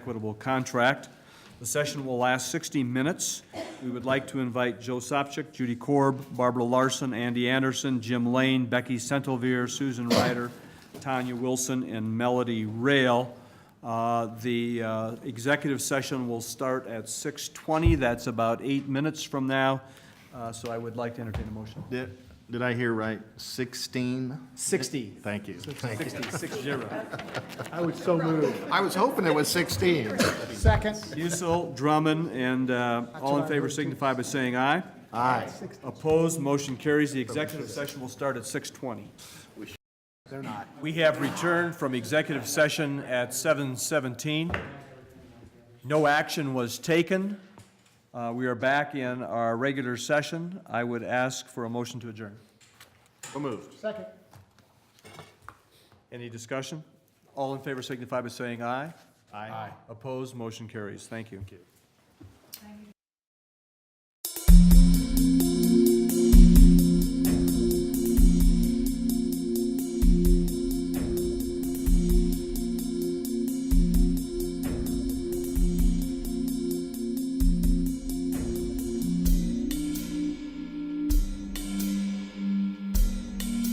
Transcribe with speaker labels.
Speaker 1: equitable contract. The session will last 60 minutes. We would like to invite Joe Sopcich, Judy Korb, Barbara Larson, Andy Anderson, Jim Lane, Becky Centelvier, Susan Ryder, Tanya Wilson, and Melody Rail. Uh, The uh, executive session will start at 6:20. That's about eight minutes from now. Uh, So I would like to entertain a motion.
Speaker 2: Did, did I hear right? Sixteen?
Speaker 1: 60.
Speaker 2: Thank you.
Speaker 1: 60, 60.
Speaker 3: I would so move.
Speaker 2: I was hoping it was sixteen.
Speaker 3: Second.
Speaker 1: Musil, Drummond, and uh, all in favor signify by saying aye.
Speaker 2: Aye.
Speaker 1: Opposed, motion carries. The executive session will start at 6:20.
Speaker 3: They're not.
Speaker 1: We have returned from executive session at 7:17. No action was taken. Uh, We are back in our regular session. I would ask for a motion to adjourn.
Speaker 3: Second.
Speaker 1: Any discussion? All in favor signify by saying aye.
Speaker 2: Aye.
Speaker 1: Opposed, motion carries. Thank you.